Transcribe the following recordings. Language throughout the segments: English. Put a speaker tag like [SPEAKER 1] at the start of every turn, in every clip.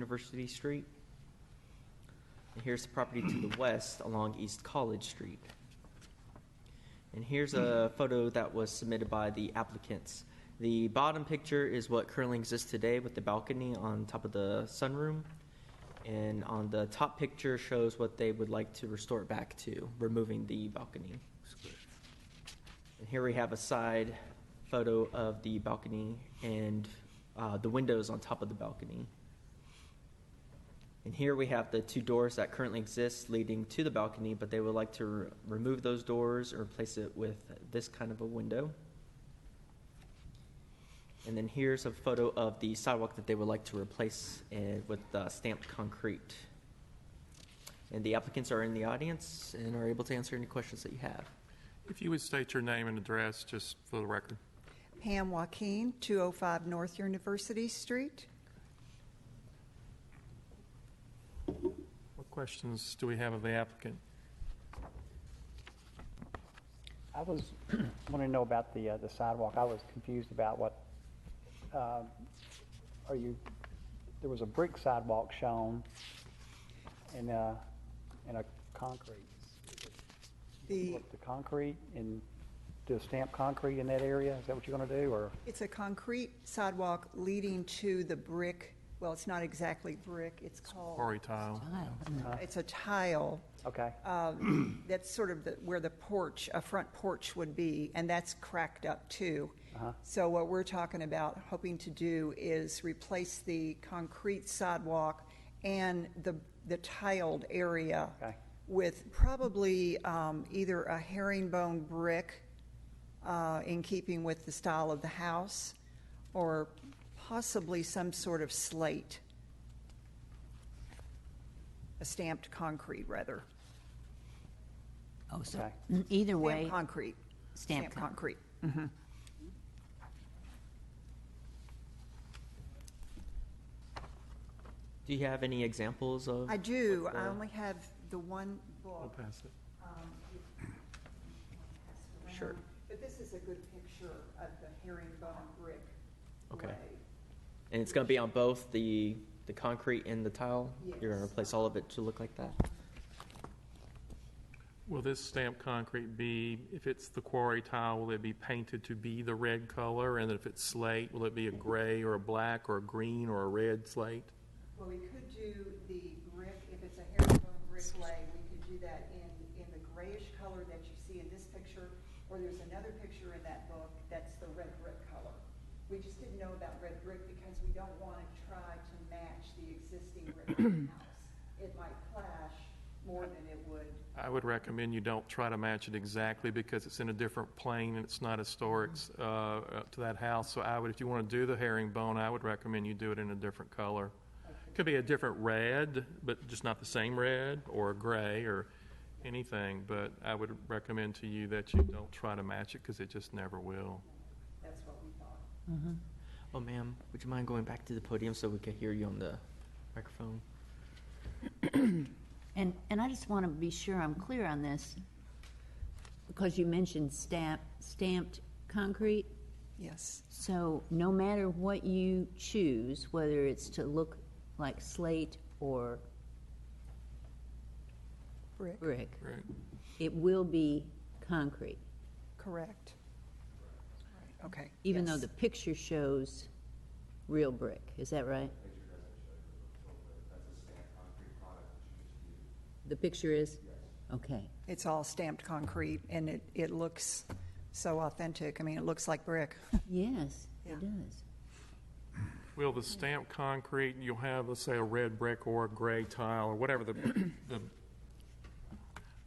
[SPEAKER 1] University Street. And here's the property to the west along East College Street. And here's a photo that was submitted by the applicants. The bottom picture is what currently exists today with the balcony on top of the sunroom. And on the top picture shows what they would like to restore it back to, removing the balcony. And here we have a side photo of the balcony and uh, the windows on top of the balcony. And here we have the two doors that currently exist leading to the balcony, but they would like to re- remove those doors or replace it with this kind of a window. And then here's a photo of the sidewalk that they would like to replace and with uh, stamped concrete. And the applicants are in the audience and are able to answer any questions that you have.
[SPEAKER 2] If you would state your name and address, just for the record.
[SPEAKER 3] Pam Joaquin, 205 North University Street.
[SPEAKER 2] What questions do we have of the applicant?
[SPEAKER 4] I was, wanting to know about the, uh, the sidewalk. I was confused about what, um, are you, there was a brick sidewalk shown and, uh, and a concrete.
[SPEAKER 3] The,
[SPEAKER 4] What, The concrete and do stamp concrete in that area? Is that what you're gonna do or?
[SPEAKER 3] it's a concrete sidewalk leading to the brick, well, it's not exactly brick, it's called,
[SPEAKER 2] Quarry tile.
[SPEAKER 3] it's a tile
[SPEAKER 4] Okay,
[SPEAKER 3] um, that's sort of the- where the porch, a front porch would be, and that's cracked up too. So what we're talking about, hoping to do is replace the concrete sidewalk and the, the tiled area
[SPEAKER 4] Okay.
[SPEAKER 3] with probably um, either a herringbone brick uh, in keeping with the style of the house, or possibly some sort of slate, a stamped concrete, rather.
[SPEAKER 5] Oh, so
[SPEAKER 4] Okay.
[SPEAKER 5] mm, either
[SPEAKER 3] Stamped
[SPEAKER 5] way,
[SPEAKER 3] concrete.
[SPEAKER 5] Stamped con-
[SPEAKER 3] concrete.
[SPEAKER 1] Do you have any examples of?
[SPEAKER 3] I do,
[SPEAKER 1] what the-
[SPEAKER 3] I only have the one book. Um,
[SPEAKER 2] pass it.
[SPEAKER 1] Sure.
[SPEAKER 3] But this is a good picture of the herringbone brick.
[SPEAKER 1] Okay.
[SPEAKER 3] way.
[SPEAKER 1] And it's going to be on both the, the concrete and the tile? You're going to
[SPEAKER 3] Yes.
[SPEAKER 1] replace all of it to look like that?
[SPEAKER 2] Will this stamped concrete be, if it's the quarry tile, will it be painted to be the red color? And if it's slate, will it be a gray or a black or a green or a red slate?
[SPEAKER 3] Well, we could do the brick, if it's a herringbone brick lay, we could do that in, in the grayish color that you see in this picture, or there's another picture in that book that's the red brick color. We just didn't know about red brick because we don't want to try to match the existing red brick house. It might clash more than it would
[SPEAKER 2] I would recommend you don't try to match it exactly because it's in a different plane and it's not historic uh, uh, to that house. So I would, if you want to do the herringbone, I would recommend you do it in a different color. Could be a different red, but just not the same red or gray or anything. But I would recommend to you that you don't try to match it because it just never will.
[SPEAKER 3] That's what we thought.
[SPEAKER 1] Oh, ma'am, would you mind going back to the podium so we could hear you on the microphone?
[SPEAKER 5] and, and I just want to be sure I'm clear on this, because you mentioned stamp, stamped concrete,
[SPEAKER 3] Yes.
[SPEAKER 5] so no matter what you choose, whether it's to look like slate or
[SPEAKER 3] Brick,
[SPEAKER 5] brick,
[SPEAKER 2] Right.
[SPEAKER 5] it will be concrete,
[SPEAKER 3] correct. Right, Okay.
[SPEAKER 5] even though
[SPEAKER 3] yes.
[SPEAKER 5] the picture shows real brick, is that right? The picture is? Okay.
[SPEAKER 3] It's all stamped concrete, and it, it looks so authentic. I mean, it looks like brick.
[SPEAKER 5] Yes,
[SPEAKER 3] Yeah.
[SPEAKER 5] it does.
[SPEAKER 2] Will the stamped concrete, you'll have, let's say, a red brick or a gray tile or whatever the, the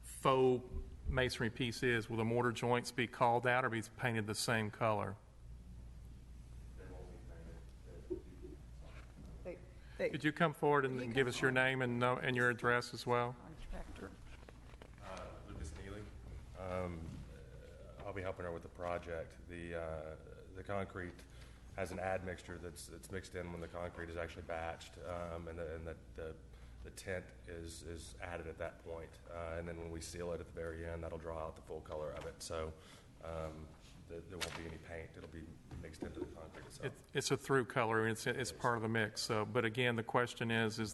[SPEAKER 2] faux masonry piece is, will the mortar joints be called out or be painted the same color?
[SPEAKER 3] They- they-
[SPEAKER 2] Could you come forward and give us your name and, no- and your address as well?
[SPEAKER 3] Contractor.
[SPEAKER 6] uh, Lucas Neely. Um, I'll be helping her with the project. The, uh, the concrete has an admixture that's, that's mixed in when the concrete is actually batched, um, and the, and the, the the tint is, is added at that point. Uh, and then when we seal it at the very end, that'll draw out the full color of it. So, um, there there won't be any paint. It'll be mixed into the concrete itself.
[SPEAKER 2] It's a through color, and it's, it's part of the mix, so, but again, the question is, is